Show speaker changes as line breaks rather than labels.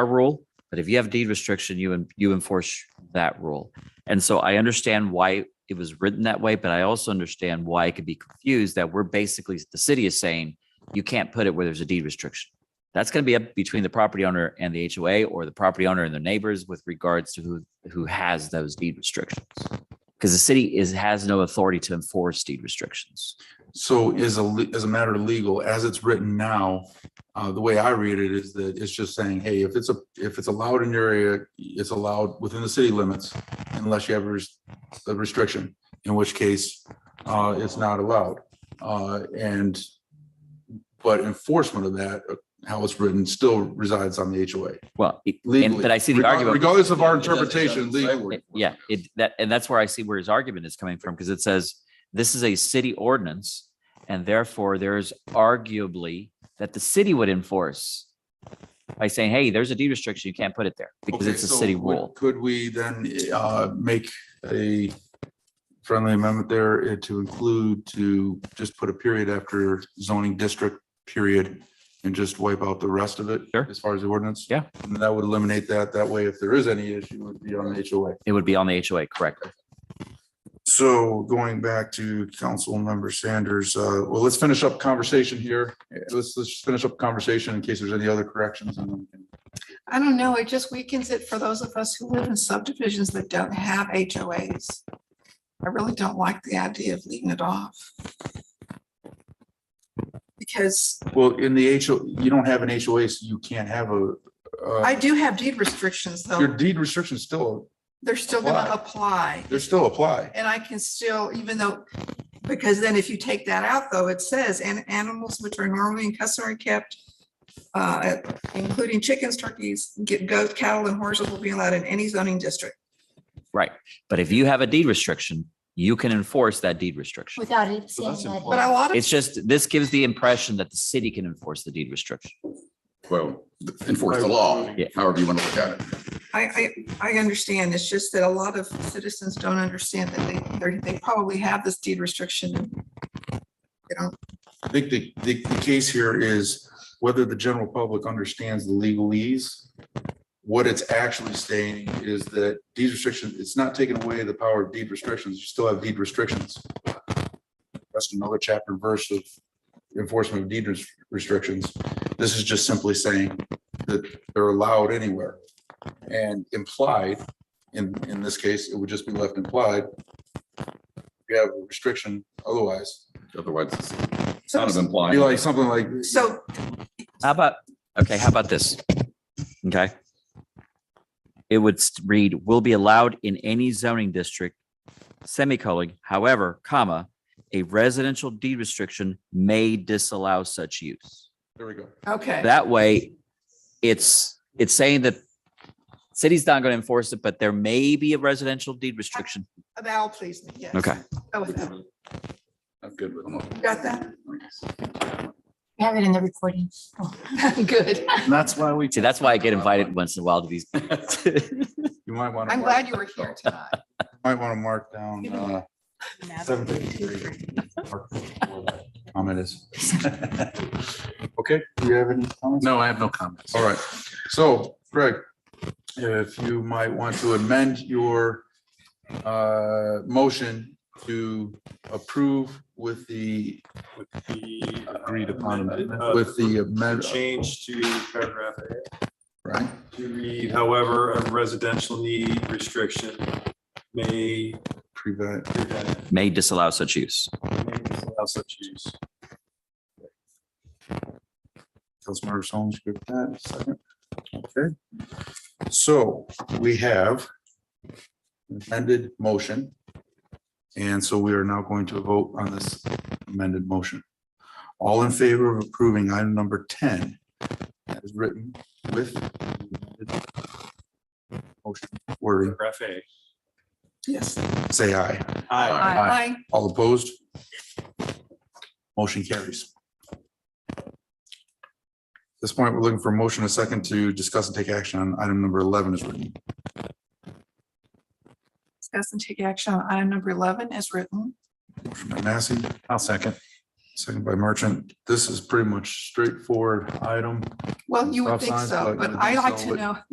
our rule, but if you have deed restriction, you, en- you enforce that rule. And so I understand why it was written that way, but I also understand why it could be confused that we're basically, the city is saying you can't put it where there's a deed restriction. That's going to be up between the property owner and the HOA or the property owner and their neighbors with regards to who, who has those deed restrictions. Because the city is, has no authority to enforce deed restrictions.
So is a, le- as a matter of legal, as it's written now, uh, the way I read it is that it's just saying, hey, if it's a, if it's allowed in your area, it's allowed within the city limits unless you have a res- a restriction, in which case, uh, it's not allowed. Uh, and but enforcement of that, uh, how it's written, still resides on the HOA
Well, it- and,
legally.
but I see the
Regard-
argument.
Regardless of our
It doesn't- it
interpretation,
doesn't say
legally.
where
It- Yeah, it, that, and that's where I see where his argument is coming from, because it says, this is a city ordinance, and therefore there's arguably that the city would enforce by saying, hey, there's a deed restriction, you can't put it there, because
Okay,
it's a
so
city
would-
rule.
Could we then uh, make a friendly amendment there uh, to include to just put a period after zoning district period and just wipe out the rest of it?
Sure.
As far as the ordinance?
Yeah.
And that would eliminate that. That way, if there is any issue, it would be on HOA.
It would be on the HOA, correct?
So going back to council member Sanders, uh, well, let's finish up conversation here. Uh, Let's, let's finish up conversation in case there's any other corrections. and then we can-
I don't know, it just weakens it for those of us who live in subdivisions that don't have HOAs. I really don't like the idea of leaving it off. Because
Well, in the HO, you don't have an HOA, so you can't have a. uh,
I do have deed restrictions,
Your
though,
deed restrictions still,
they're still gonna apply,
they still apply.
and I can still, even though, because then if you take that out, though, it says, and animals which are normally and customary kept, uh, including chickens, turkeys, get goats, cattle, and horses will be allowed in any zoning district.
But if you have a deed restriction, you can enforce that deed restriction.
Without it
So
saying
that's
that.
But a lot of.
It's just, this gives the impression that the city can enforce the deed restriction.
Well, enforce the law,
Yeah.
however you want to look at it.
I, I, I understand. It's just that a lot of citizens don't understand that they, they're- they probably have this deed restriction. and They don't,
I think the, the, the case here is whether the general public understands the legalese. What it's actually saying is that deed restriction, it's not taking away the power of deed restrictions. You still have deed restrictions. That's another chapter and verse of enforcement of deed res- restrictions. This is just simply saying that they're allowed anywhere. And implied, in, in this case, it would just be left implied. You have a restriction otherwise.
Otherwise, it's
so,
Um,
kind of implying.
Be like something like.
so
How about, okay, how about this? Okay. It would st- read, will be allowed in any zoning district, semicolon, however, comma, a residential deed restriction may disallow such use.
There we go.
okay,
That way, it's, it's saying that city's not going to enforce it, but there may be a residential deed restriction.
that'll please me, yes.
Okay.
Go with that.
I'm good with them.
Got that?
We Have it in the recording. Oh,
Good.
That's why we.
See, that's why I get invited once in a while to these.
You might want to,
I'm
might
glad you were here tonight.
want to mark down, uh, seven fifty-three. Mark where that Comment is. Okay, do you have any comments? No, I have no comments. All right, so Greg, if you might want to amend your uh, motion to approve with the,
Agreed
upon with the uh, amendment,
uh, Change to paragraph A
right?
to read, however, a residential need restriction may
Prevent,
prevent
May disallow such use.
may disallow such use.
Councilmember Solms, good with that, second. Okay. So we have amended motion. And so we are now going to vote on this amended motion. All in favor of approving item number ten as written with the amended motion wording,
Paragraph A.
Yes.
say aye.
Aye.
Aye.
All opposed? Motion carries. At this point, we're looking for a motion, a second to discuss and take action on item number 11 is written.
Discuss and take action on item number eleven as written.
Motion by Massey. I'll second. second by Merchant. This is pretty much straightforward item.
Well, you
Stop
would think
signs,
so,
like, you
but
would
I
think
like
so,
to
but-
know